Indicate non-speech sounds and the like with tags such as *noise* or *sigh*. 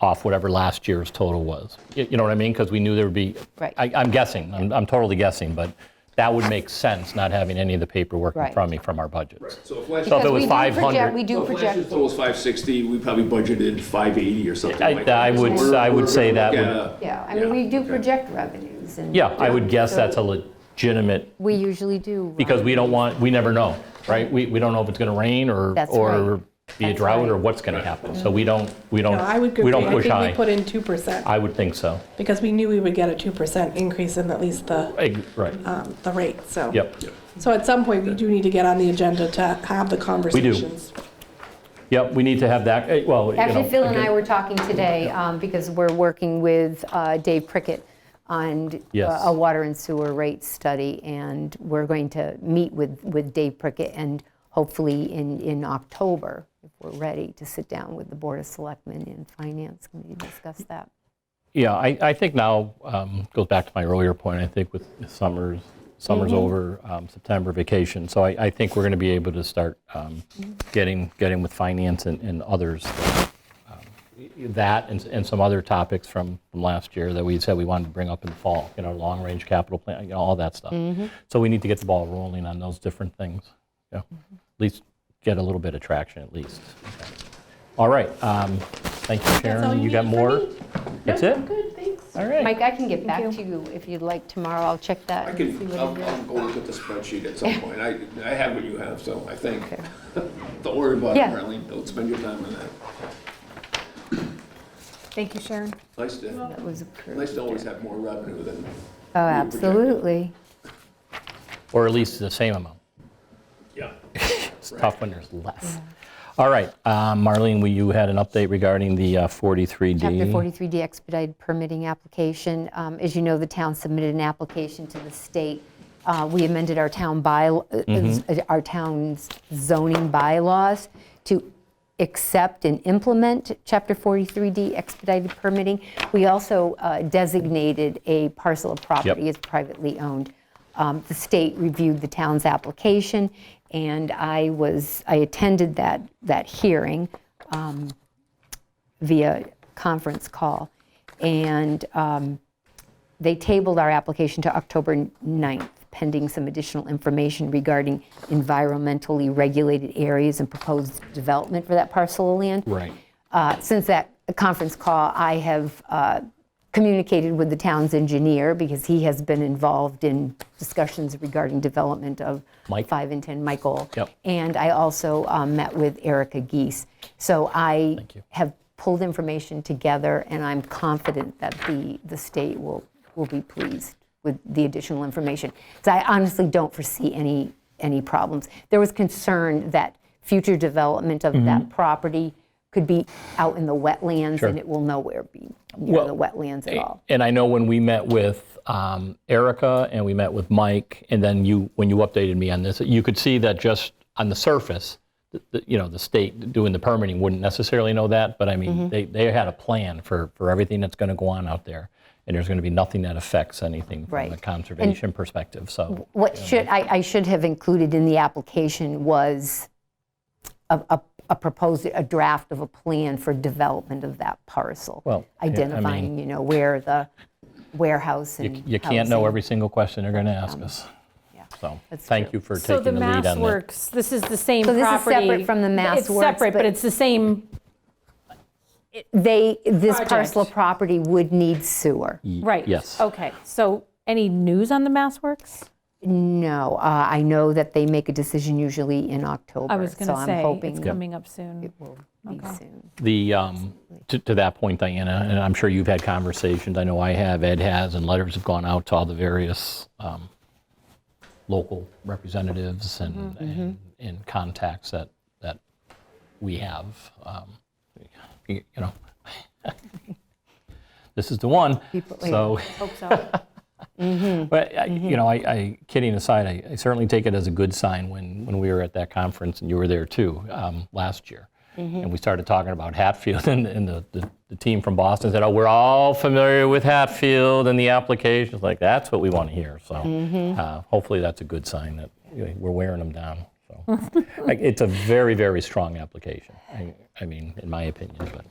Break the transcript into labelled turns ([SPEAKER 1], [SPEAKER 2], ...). [SPEAKER 1] off whatever last year's total was. You you know what I mean? Because we knew there would be,
[SPEAKER 2] Right.
[SPEAKER 1] I- I'm guessing, I'm I'm totally guessing, but that would make sense, not having any of the paperwork in
[SPEAKER 2] Right.
[SPEAKER 1] front of me from our budgets.
[SPEAKER 3] So if last,
[SPEAKER 1] So
[SPEAKER 2] Because
[SPEAKER 1] if it was
[SPEAKER 2] we do project-
[SPEAKER 1] 500.
[SPEAKER 2] We do
[SPEAKER 3] so if last year's
[SPEAKER 2] project,
[SPEAKER 3] total was 560, we probably budgeted 580 or something
[SPEAKER 1] I-
[SPEAKER 3] like that.
[SPEAKER 1] I would-
[SPEAKER 3] So we're-
[SPEAKER 1] I would
[SPEAKER 3] we're
[SPEAKER 1] say
[SPEAKER 3] gonna
[SPEAKER 1] that
[SPEAKER 3] look
[SPEAKER 1] would-
[SPEAKER 3] at a-
[SPEAKER 4] Yeah, I mean, we do project revenues and.
[SPEAKER 1] Yeah, I would guess
[SPEAKER 4] So
[SPEAKER 1] that's a legitimate,
[SPEAKER 2] we usually do. Ron.
[SPEAKER 1] because we don't want, we never know, right? We we don't know if it's going to rain or
[SPEAKER 2] That's
[SPEAKER 1] or
[SPEAKER 2] right.
[SPEAKER 1] be a
[SPEAKER 2] That's
[SPEAKER 1] drought or
[SPEAKER 2] right.
[SPEAKER 1] what's going to happen. So we don't, we don't,
[SPEAKER 5] No, I would
[SPEAKER 1] Oh, we
[SPEAKER 5] agree.
[SPEAKER 1] don't
[SPEAKER 5] I
[SPEAKER 1] push
[SPEAKER 5] think we
[SPEAKER 1] high.
[SPEAKER 5] put in 2%
[SPEAKER 1] I would think so.
[SPEAKER 5] because we knew we would get a 2% increase in at least the,
[SPEAKER 1] Ex- Right,
[SPEAKER 5] um, the rate, so.
[SPEAKER 1] yep,
[SPEAKER 5] So at some point, we do need to get on the agenda to have the conversations.
[SPEAKER 1] yep, we need to have that, eh, well, you know.
[SPEAKER 4] Actually, Phil and I
[SPEAKER 1] again-
[SPEAKER 4] were talking today, um, because we're working with uh, Dave Prickett on
[SPEAKER 1] Yes.
[SPEAKER 4] uh, a water and sewer rate study, and we're going to meet with, with Dave Prickett, and hopefully in, in October, if we're ready, to sit down with the Board of Selectmen and Finance Committee to discuss that.
[SPEAKER 1] Yeah, I, I think now, um, goes back to my earlier point, I think with summers, summer's
[SPEAKER 5] Mm-hmm.
[SPEAKER 1] over, um, September vacation, so I, I think we're going to be able to start um, getting, getting with finance and, and others, um, that and, and some other topics from, from last year that we said we wanted to bring up in the fall, you know, long-range capital plan, you know, all that stuff.
[SPEAKER 5] Mm-hmm.
[SPEAKER 1] So we need to get the ball rolling on those different things, yeah, at
[SPEAKER 5] Mm-hmm.
[SPEAKER 1] least get a little bit of traction at least. All right, um, thank you,
[SPEAKER 5] all
[SPEAKER 1] Sharon,
[SPEAKER 5] you
[SPEAKER 1] you got
[SPEAKER 5] need for
[SPEAKER 1] more?
[SPEAKER 5] me?
[SPEAKER 1] That's
[SPEAKER 5] No,
[SPEAKER 1] it?
[SPEAKER 5] Good, thanks.
[SPEAKER 1] All right.
[SPEAKER 4] Mike, I can get back to you if you'd like tomorrow, I'll check that
[SPEAKER 3] I
[SPEAKER 4] and see
[SPEAKER 3] can,
[SPEAKER 4] what it
[SPEAKER 3] I'll, I'll
[SPEAKER 4] is.
[SPEAKER 3] go look at the spreadsheet at some point. I, I have what you have, so I think. *laughs* Don't worry about it,
[SPEAKER 4] Yeah.
[SPEAKER 3] Marlene. Don't spend your time on that.
[SPEAKER 2] Thank you, Sharon.
[SPEAKER 3] Nice to,
[SPEAKER 4] That was approved.
[SPEAKER 3] nice to always have more revenue than.
[SPEAKER 4] Oh, absolutely.
[SPEAKER 1] Or at least the same amount.
[SPEAKER 3] Yeah.
[SPEAKER 1] It's tough when there's less. All right, um, Marlene, we- you had an update regarding the uh, 43D.
[SPEAKER 4] Chapter 43D expedited permitting application. Um, As you know, the town submitted an application to the state. Uh, We amended our town uh, by, our town's zoning bylaws to accept and implement Chapter 43D expedited permitting. We also uh, designated a parcel of property as privately owned. Um, The state reviewed the town's application, and I was, I attended that, that hearing via conference call. And um, they tabled our application to October 9th, pending some additional information regarding environmentally regulated areas and proposed development for that parcel of land.
[SPEAKER 1] Right.
[SPEAKER 4] Uh, Since that conference call, I have uh, communicated with the town's engineer because he has been involved in discussions regarding development of
[SPEAKER 1] Mike?
[SPEAKER 4] 5 and 10 Michael.
[SPEAKER 1] Yep.
[SPEAKER 4] And I also um, met with Erica Geese. So I
[SPEAKER 1] you.
[SPEAKER 4] have pulled information together, and I'm confident that the, the state will, will be pleased with the additional information. So I honestly don't foresee any, any problems. There was concern that future development of
[SPEAKER 1] Mm-hmm.
[SPEAKER 4] that property could be out in the wetlands, and it will nowhere be near
[SPEAKER 1] Well,
[SPEAKER 4] the wetlands at all.
[SPEAKER 1] And I know when we met with um, Erica and we met with Mike, and then you, when you updated me on this, you could see that just on the surface, th- th- you know, the state doing the permitting wouldn't necessarily know that, but I
[SPEAKER 4] Mm-hmm.
[SPEAKER 1] mean, they, they had a plan for, for everything that's going to go on out there. And there's going to be nothing that affects anything from
[SPEAKER 4] Right.
[SPEAKER 1] a
[SPEAKER 4] And-
[SPEAKER 1] conservation perspective, so.
[SPEAKER 4] What should, I, I should have included in the application was a, a- a proposed, a draft of a plan for development of that parcel.
[SPEAKER 1] Well, yeah, I mean-
[SPEAKER 4] Identifying, you know, where the warehouse and
[SPEAKER 1] You can't know
[SPEAKER 4] housing.
[SPEAKER 1] every single question they're going to ask us. So, thank
[SPEAKER 4] true.
[SPEAKER 1] you for
[SPEAKER 6] So
[SPEAKER 1] taking
[SPEAKER 6] the
[SPEAKER 1] the lead
[SPEAKER 6] Mass
[SPEAKER 1] on that.
[SPEAKER 6] Works, this is the same
[SPEAKER 4] So
[SPEAKER 6] property.
[SPEAKER 4] this is separate from the Mass Works,
[SPEAKER 6] It's separate,
[SPEAKER 4] but-
[SPEAKER 6] but it's the same,
[SPEAKER 4] They, this
[SPEAKER 6] Project.
[SPEAKER 4] parcel of property would need sewer.
[SPEAKER 6] right.
[SPEAKER 1] yes.
[SPEAKER 6] Okay, so any news on the Mass Works?
[SPEAKER 4] No, uh, I know that they make a decision usually in October.
[SPEAKER 6] I was going to
[SPEAKER 4] So I'm
[SPEAKER 6] say,
[SPEAKER 4] hoping
[SPEAKER 6] it's coming up soon.
[SPEAKER 4] will be soon.
[SPEAKER 1] The, um, to to that point, Diana, and I'm sure you've had conversations, I know I have, Ed has, and letters have gone out to all the various um, local representatives and-
[SPEAKER 4] Mm-hmm.
[SPEAKER 1] and, and contacts that, that we have. Um, You you know, *laughs* this is the one, so.
[SPEAKER 6] Hope
[SPEAKER 1] *laughs*
[SPEAKER 6] so. Mm-hmm.
[SPEAKER 1] But, I- you know, I, I, kidding aside, I, I certainly take it as a good sign when, when we were at that conference, and you were there too, um, last year.
[SPEAKER 6] Mm-hmm.
[SPEAKER 1] And we started talking about Hatfield, *laughs* and, and the, the, the team from Boston said, oh, we're all familiar with Hatfield and the applications, like, that's what we want to hear. So
[SPEAKER 6] Mm-hmm.
[SPEAKER 1] uh, hopefully that's a good sign that you know, we're wearing them down. So like, It's a very, very strong application, I, I mean, in my opinion, but